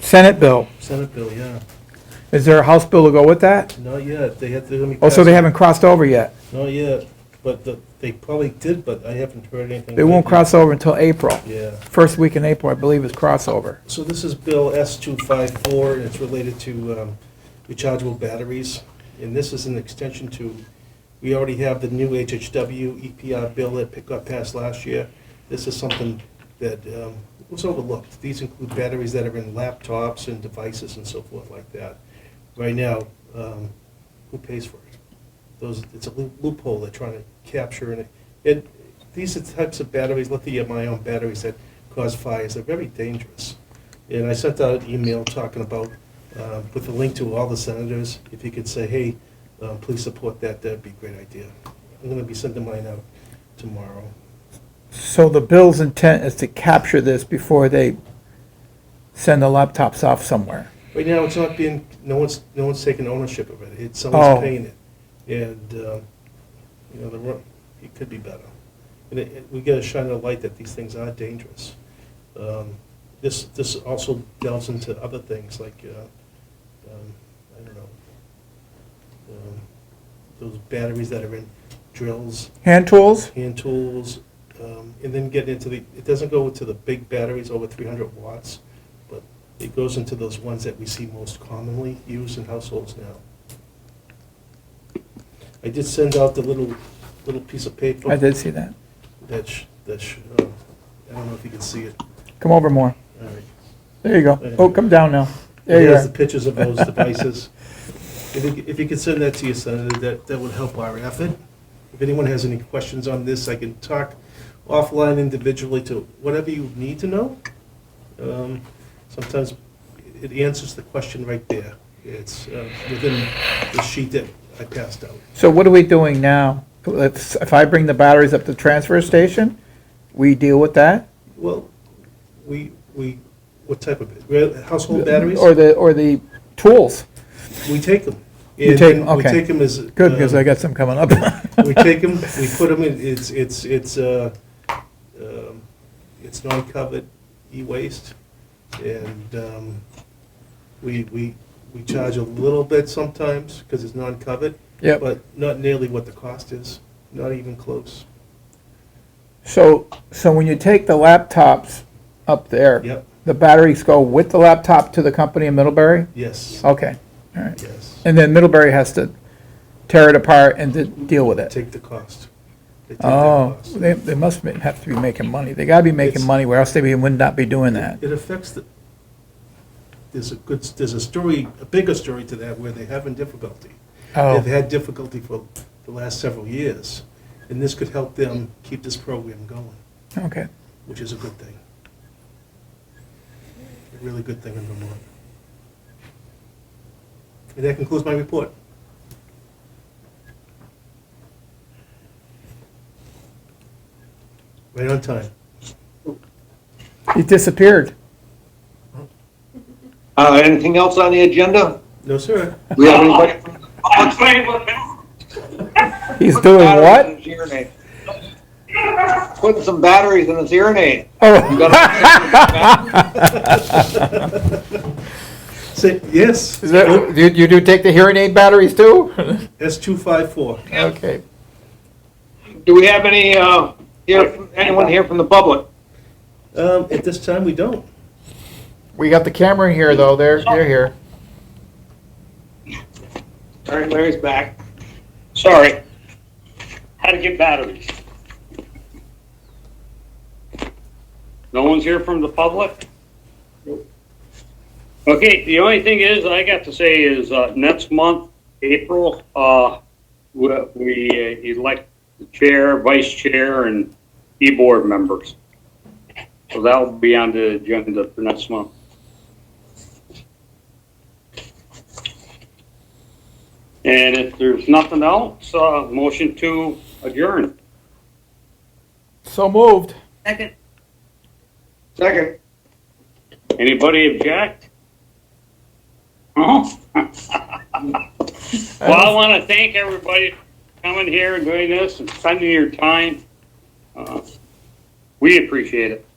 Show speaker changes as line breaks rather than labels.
Senate bill.
Senate bill, yeah.
Is there a House bill to go with that?
Not yet. They had, they're gonna be.
Oh, so
passing-
they haven't crossed over yet.
Not yet, but the- they probably did, but I haven't heard anything.
They won't
lately.
cross over until April.
Yeah.
First week in April, I believe, is crossover.
So this is Bill S-254, and it's related to um, rechargeable batteries. And this is an extension to, we already have the new HHW EPR E bill that pick- got passed last year. This is something that um, was overlooked. These include batteries that are in laptops and devices and so forth like that. Right now, um, who pays for it? Those, it's a loo- loophole they're trying to capture, and it, these are types of batteries, lithium-ion batteries that cause fires, they're very dangerous. And I sent out an email talking about, uh, with a link to all the senators, if you could say, hey, uh, please support that, that'd be a great idea. I'm gonna be sending mine out tomorrow.
So the bill's intent is to capture this before they send the laptops off somewhere.
Right now, it's not being, no one's, no one's taking ownership of it, it's, someone's
Oh.
paying it. And, uh, you know, the, ro- it could be better. And it- it, we gotta shine a light that these things are dangerous. Um, This, this also delves into other things, like, uh, um, I don't know, um, those batteries that are in drills,
Hand tools?
hand tools, um, and then get into the, it doesn't go into the big batteries over 300 watts, but it goes into those ones that we see most commonly used in households now. I did send out the little, little piece of paper.
I did see that.
That, sh- that, sh- uh, I don't know if you can see it.
Come over more.
All right.
There you go. Oh, come down now. There you
There's the
are.
pictures of those devices. If you, if you could send that to your senator, that, that would help our effort. If anyone has any questions on this, I can talk offline individually to whatever you need to know. Um, Sometimes it answers the question right there. It's uh, within the sheet that I passed out.
So what are we doing now? If, if I bring the batteries up to the transfer station, we deal with that?
Well, we, we, what type of, it? household batteries?
Or the, or the tools?
We take them.
You take
And
'em,
We
okay.
take them as.
Good, because
um,
I got some coming up.
We take them, we put them in, it's, it's, it's, uh, um, it's non-covered e-waste, and, um, we, we, we charge a little bit sometimes, because it's non-covered,
Yep.
but not nearly what the cost is, not even close.
So, so when you take the laptops up there?
Yep,
The batteries go with the laptop to the company in Middlebury?
yes,
Okay, all right.
yes,
And then Middlebury has to tear it apart and to deal with it?
take the cost. They take that
Oh,
cost.
they, they must ma- have to be making money. They gotta be making
It's-
money, where else they would not be doing that.
It affects the, there's a good, there's a story, a bigger story to that, where they're having difficulty. They've
Oh,
had difficulty for the last several years, and this could help them keep this program going,
okay.
which is a good thing. A really good thing in Vermont. And that concludes my report. Right on time.
He disappeared.
Uh, anything else on the agenda?
No, sir.
We have anybody?
I'll tell you what,
He's doing what?
Putting some batteries in his hearing aid. You
Oh,
Say, yes,
is that, you, you do take the hearing aid batteries too?
S two five four.
Okay.
Do we have any, uh, here, anyone here from the public?
Um, at this time, we don't.
We got the camera here though, they're, they're here.
All right, Larry's back.
sorry. How to get batteries. No one's here from the public? Okay, the only thing is, I got to say is, uh, next month, April, uh, we, we uh, elect the chair, vice chair, and e-board members. So that'll be on the agenda for next month. And if there's nothing else, uh, motion to adjourn.
So moved.
Second.
Second.
Anybody object? No? Well, I want to thank everybody for coming here and doing this and spending your time. Uh, We appreciate it.